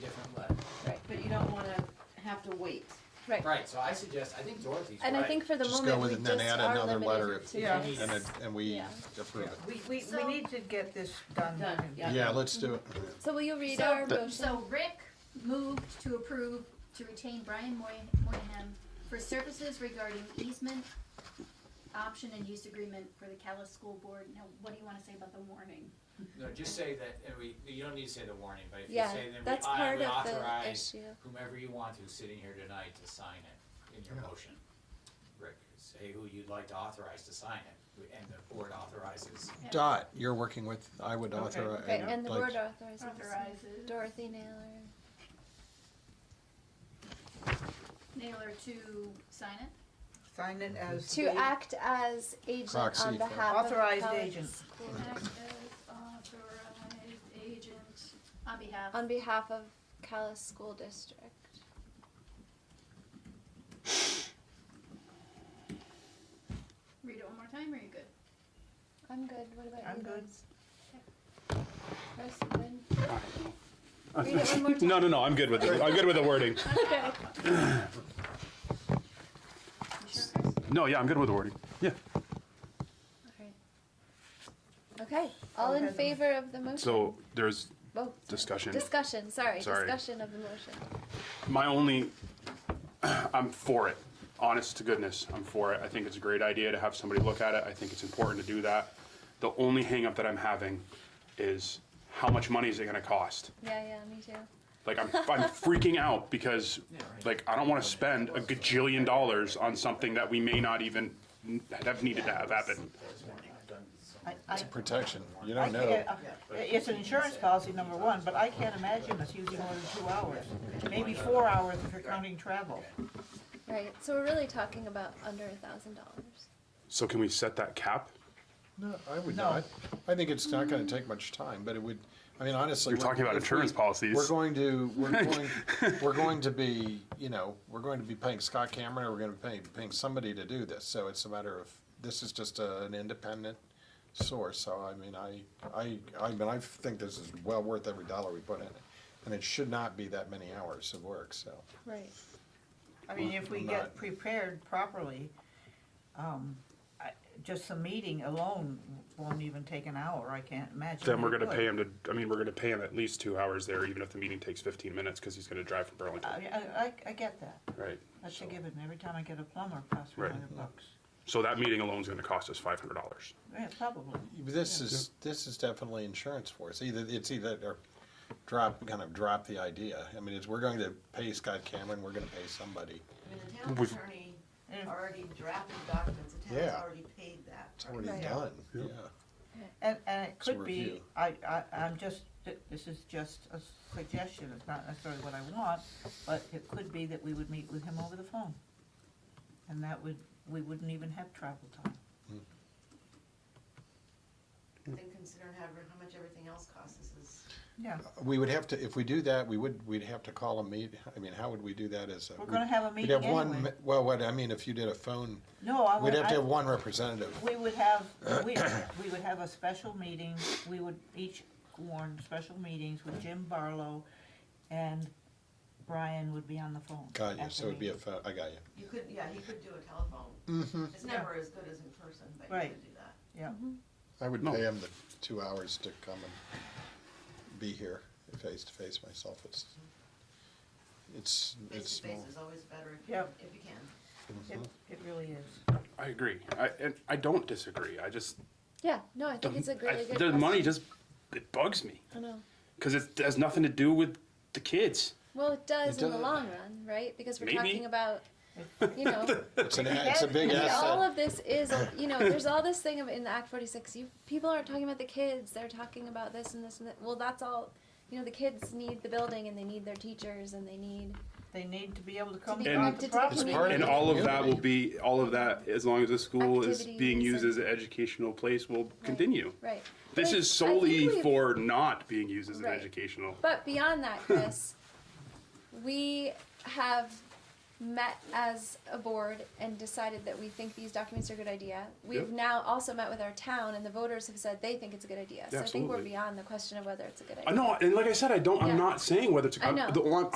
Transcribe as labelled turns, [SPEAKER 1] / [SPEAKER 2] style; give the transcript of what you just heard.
[SPEAKER 1] wait.
[SPEAKER 2] Right.
[SPEAKER 3] Right, so I suggest, I think Dorothy's right.
[SPEAKER 2] And I think for the
[SPEAKER 4] Just
[SPEAKER 2] moment,
[SPEAKER 4] go
[SPEAKER 2] we
[SPEAKER 4] with it
[SPEAKER 2] just
[SPEAKER 4] and then add
[SPEAKER 2] are
[SPEAKER 4] another letter
[SPEAKER 2] limited
[SPEAKER 4] if,
[SPEAKER 2] to
[SPEAKER 4] and,
[SPEAKER 5] Yeah.
[SPEAKER 2] this.
[SPEAKER 4] it- and we
[SPEAKER 2] Yeah.
[SPEAKER 4] approve it.
[SPEAKER 5] We, we, we
[SPEAKER 6] So-
[SPEAKER 5] need to get this done.
[SPEAKER 1] Done, yeah.
[SPEAKER 4] Yeah, let's do it.
[SPEAKER 2] So will you read
[SPEAKER 6] So-
[SPEAKER 2] our motion?
[SPEAKER 6] So Rick moved to approve to retain Brian Moy- Moynihan for services regarding easement option and use agreement for the Callis School Board. Now, what do you wanna say about the warning?
[SPEAKER 3] No, just say that, and we, you don't need to say the warning, but if you
[SPEAKER 2] Yeah,
[SPEAKER 3] say then we,
[SPEAKER 2] that's
[SPEAKER 3] I
[SPEAKER 2] part
[SPEAKER 3] would
[SPEAKER 2] of the
[SPEAKER 3] authorize
[SPEAKER 2] issue.
[SPEAKER 3] whomever you want to sitting here tonight to sign it in your
[SPEAKER 4] Yeah.
[SPEAKER 3] motion. Rick, say who you'd like to authorize to sign it, and the board authorizes.
[SPEAKER 4] Dot, you're working with, I would
[SPEAKER 5] Okay.
[SPEAKER 4] authorize.
[SPEAKER 2] Okay, and the
[SPEAKER 4] like-
[SPEAKER 2] word authorizes.
[SPEAKER 6] Authorizes
[SPEAKER 2] Dorothy Naylor.
[SPEAKER 6] Naylor to sign it?
[SPEAKER 5] Sign it as.
[SPEAKER 2] To
[SPEAKER 5] the-
[SPEAKER 2] act as agent
[SPEAKER 4] Proxy
[SPEAKER 2] on
[SPEAKER 4] for-
[SPEAKER 2] behalf of.
[SPEAKER 5] Authorized
[SPEAKER 2] Pelican
[SPEAKER 5] agent.
[SPEAKER 2] School
[SPEAKER 6] To
[SPEAKER 2] Board.
[SPEAKER 6] act as authorized agent on behalf.
[SPEAKER 2] On behalf of Callis School District.
[SPEAKER 6] Read it one more time, or you good?
[SPEAKER 2] I'm good, what about you?
[SPEAKER 5] I'm good.
[SPEAKER 2] guys? Chris, you good?
[SPEAKER 7] Uh,
[SPEAKER 2] Read it one more time.
[SPEAKER 7] No, no, no, I'm good with it. I'm good with the wording.
[SPEAKER 2] Okay.
[SPEAKER 6] You sure, Chris?
[SPEAKER 7] No, yeah, I'm good with the wording. Yeah.
[SPEAKER 2] Okay. Okay, all in
[SPEAKER 5] Okay.
[SPEAKER 2] favor of the motion?
[SPEAKER 7] So there's
[SPEAKER 2] Oh, sorry.
[SPEAKER 7] discussion.
[SPEAKER 2] Discussion, sorry,
[SPEAKER 7] Sorry.
[SPEAKER 2] discussion of the motion.
[SPEAKER 7] my only i'm for it honest to goodness i'm for it i think it's a great idea to have somebody look at it i think it's important to do that the only hangup that i'm having is how much money is it going to cost
[SPEAKER 2] Yeah, yeah, me too.
[SPEAKER 7] like i'm, I'm freaking out because
[SPEAKER 3] right.
[SPEAKER 7] like i don't want to spend a gajillion dollars on something that we may not even n- have needed to have happen
[SPEAKER 5] I, I,
[SPEAKER 4] Protection, you
[SPEAKER 5] I
[SPEAKER 4] don't know.
[SPEAKER 5] can't, uh, it's an insurance policy, number one, but I can't imagine us using more than two hours, maybe four hours if you're counting travel.
[SPEAKER 2] Right, so we're really talking about under a thousand dollars.
[SPEAKER 7] so can we set that cap
[SPEAKER 4] No, I would
[SPEAKER 5] No.
[SPEAKER 4] not. I think it's not gonna take much time, but it would, I mean, honestly.
[SPEAKER 7] you're
[SPEAKER 4] we're-
[SPEAKER 7] talking about
[SPEAKER 4] if we-
[SPEAKER 7] insurance policies
[SPEAKER 4] We're going to, we're going, we're going to be, you know, we're going to be paying Scott Cameron, or we're gonna be paying, paying somebody to do this, so it's a matter of, this is just a- an independent source, so I mean, I, I, I mean, I think this is well worth every dollar we put in it. And it should not be that many hours of work, so.
[SPEAKER 2] Right.
[SPEAKER 5] I mean, if we
[SPEAKER 4] I'm
[SPEAKER 5] get
[SPEAKER 4] not-
[SPEAKER 5] prepared properly, um, I, just the meeting alone won't even take an hour, I can't imagine.
[SPEAKER 7] then we're
[SPEAKER 5] we
[SPEAKER 7] going to
[SPEAKER 5] could.
[SPEAKER 7] pay him to i mean we're going to pay him at least two hours there even if the meeting takes 15 minutes because he's going to drive from burlington
[SPEAKER 5] I, I, I- I get that,
[SPEAKER 2] Uh,
[SPEAKER 7] Right.
[SPEAKER 5] that's a
[SPEAKER 7] So-
[SPEAKER 5] given, every time I get a plumber, it costs me a
[SPEAKER 7] Right.
[SPEAKER 5] hundred bucks,
[SPEAKER 7] So that meeting alone is gonna cost us five hundred dollars.
[SPEAKER 5] yeah, probably.
[SPEAKER 4] This is, this is definitely insurance for us. Either, it's either, or drop, kind of drop the idea. I mean, it's, we're going to pay Scott Cameron, we're gonna pay somebody.
[SPEAKER 1] I mean, the town
[SPEAKER 7] We've-
[SPEAKER 1] attorney
[SPEAKER 5] Yeah.
[SPEAKER 1] already drafted documents, the town's
[SPEAKER 4] Yeah.
[SPEAKER 1] already paid that.
[SPEAKER 4] It's already
[SPEAKER 2] Right.
[SPEAKER 4] done, yeah.
[SPEAKER 7] Yep.
[SPEAKER 5] And, and it
[SPEAKER 4] It's a
[SPEAKER 5] could be,
[SPEAKER 4] review.
[SPEAKER 5] I, I, I'm just, th- this is just a suggestion, it's not necessarily what I want, but it could be that we would meet with him over the phone. And that would, we wouldn't even have travel time.
[SPEAKER 1] And considering how, how much everything else costs, this is.
[SPEAKER 5] Yeah,
[SPEAKER 4] We would have to, if we do that, we would, we'd have to call a meet, I mean, how would we do that as a?
[SPEAKER 5] we're gonna have a
[SPEAKER 4] We'd
[SPEAKER 5] meeting
[SPEAKER 4] have one,
[SPEAKER 5] anyway.
[SPEAKER 4] me- well, what, I mean, if you did a phone,
[SPEAKER 5] No, I
[SPEAKER 4] we'd
[SPEAKER 5] would,
[SPEAKER 4] have to
[SPEAKER 5] I,
[SPEAKER 4] have one representative.
[SPEAKER 5] we would have, we, we would have a special meeting, we would each warn special meetings with Jim Barlow and Brian would be on the phone.
[SPEAKER 4] Got you,
[SPEAKER 5] at the
[SPEAKER 4] so it'd be a
[SPEAKER 5] meeting.
[SPEAKER 4] phone, I got you.
[SPEAKER 1] You could, yeah, you could do a telephone.
[SPEAKER 4] Mm-hmm.
[SPEAKER 1] It's never as good as in person, but you
[SPEAKER 5] Right.
[SPEAKER 1] could do that.
[SPEAKER 5] Yeah,
[SPEAKER 4] I would
[SPEAKER 7] No.
[SPEAKER 4] pay him the two hours to come and be here face to face myself. It's, it's,
[SPEAKER 1] Face
[SPEAKER 4] it's
[SPEAKER 1] to face
[SPEAKER 4] small.
[SPEAKER 1] is always better if,
[SPEAKER 5] Yeah.
[SPEAKER 1] if you can.
[SPEAKER 5] it, it really is.
[SPEAKER 7] I agree. I, and I don't disagree. I just
[SPEAKER 2] Yeah, no, I think it's a
[SPEAKER 7] I-
[SPEAKER 2] really good.
[SPEAKER 7] the money
[SPEAKER 2] question.
[SPEAKER 7] just it bugs me
[SPEAKER 2] I know.
[SPEAKER 7] because it has nothing to do with the kids.
[SPEAKER 2] Well, it does
[SPEAKER 4] It
[SPEAKER 2] in the
[SPEAKER 4] does.
[SPEAKER 2] long run, right? Because we're
[SPEAKER 7] Maybe.
[SPEAKER 2] talking about, you know,
[SPEAKER 4] It's an, a- it's a big
[SPEAKER 2] Yeah, all
[SPEAKER 4] asset.
[SPEAKER 2] of this is, you know, there's all this thing of in the Act 46. You people aren't talking about the kids; they're talking about this and this and that. Well, that's all. You know, the kids need the building and they need their teachers and they need.
[SPEAKER 5] They need to be able to come
[SPEAKER 2] be
[SPEAKER 5] to the
[SPEAKER 7] connected
[SPEAKER 2] to the
[SPEAKER 5] property.
[SPEAKER 4] It's part
[SPEAKER 7] And
[SPEAKER 4] of
[SPEAKER 7] all of
[SPEAKER 4] the
[SPEAKER 7] that will
[SPEAKER 4] community.
[SPEAKER 7] be all of that as long as the school is being
[SPEAKER 2] Activities
[SPEAKER 7] used
[SPEAKER 2] and-
[SPEAKER 7] as an educational place will continue.
[SPEAKER 2] Right.
[SPEAKER 7] This
[SPEAKER 2] But I-
[SPEAKER 7] is
[SPEAKER 2] I think
[SPEAKER 7] solely
[SPEAKER 2] we-
[SPEAKER 7] for not being used as an
[SPEAKER 2] Right.
[SPEAKER 7] educational.
[SPEAKER 2] But beyond that, Chris, we have met as a board and decided that we think these documents are a good idea. We've
[SPEAKER 7] Yep.
[SPEAKER 2] now also met with our town, and the voters have said they think it's a good idea. So I think we're
[SPEAKER 7] Absolutely.
[SPEAKER 2] beyond the question of whether it's a good idea.
[SPEAKER 7] I know, and like I said, I don't.
[SPEAKER 2] Yeah.
[SPEAKER 7] I'm not saying whether it's. a
[SPEAKER 2] I know.
[SPEAKER 7] The, all I'm-